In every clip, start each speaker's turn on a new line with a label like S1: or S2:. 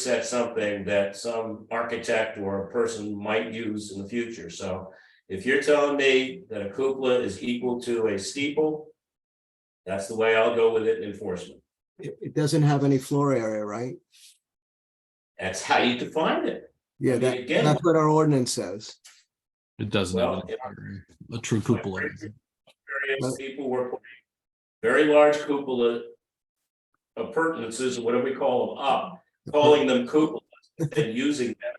S1: set something that some architect or a person might use in the future, so. If you're telling me that a cupola is equal to a steeple. That's the way I'll go with it in enforcement,
S2: It, it doesn't have any floor area, right?
S1: that's how you define it, I
S2: Yeah,
S1: mean,
S2: that,
S1: again-
S2: that's what our ordinance says.
S3: It doesn't
S1: Well,
S3: have
S1: yeah.
S3: an- a true cupola.
S1: various
S2: Well-
S1: people were. putting Very large cupola. Appurtenances, or whatever we call them, up, calling them cupolas and using them.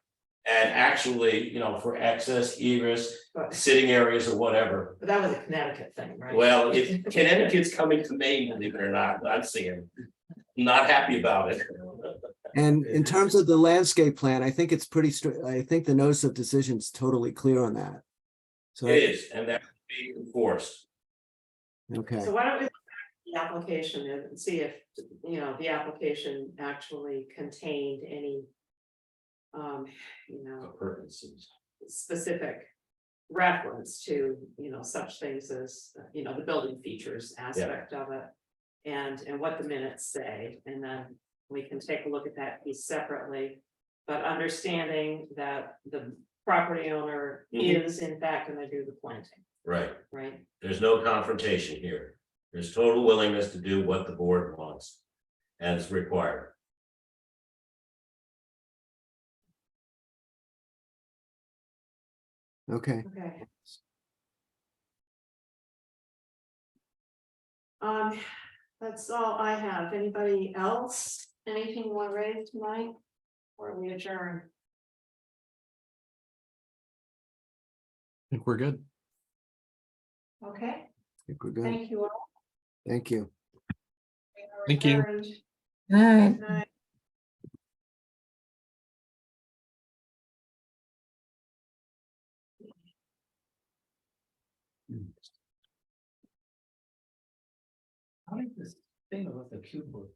S1: And actually, you know, for access, egress,
S4: But
S1: sitting areas or whatever.
S4: but that was a Connecticut thing, right?
S1: Well, if Connecticut's coming to Maine, believe it or not, I'm seeing, not happy about it.
S2: And in terms of the landscape plan, I think it's pretty straight, I think the notice of decision is totally clear on that. So,
S1: It is, and that would be enforced.
S2: okay,
S4: So why don't we look back at the application and see if, you know, the application actually contained any. Um, you know,
S1: Appurtenances.
S4: specific reference to, you know, such things as, you know, the building features aspect of it. And, and what the minutes say, and then we can take a look at that piece separately. But understanding that the property owner
S1: Mhm.
S4: is in fact gonna do the planting,
S1: Right,
S4: right?
S1: there's no confrontation here. There's total willingness to do what the board wants as required.
S2: okay.
S4: Okay. Um, that's all I have. Anybody else? Anything you want raised tonight? Or we adjourn?
S3: I think we're good.
S4: Okay,
S2: I think we're good.
S4: thank you all.
S2: Thank you.
S4: We are
S3: Thank you.
S4: adjourned.
S5: Alright.
S4: Good night.
S6: How did this thing about the cube work?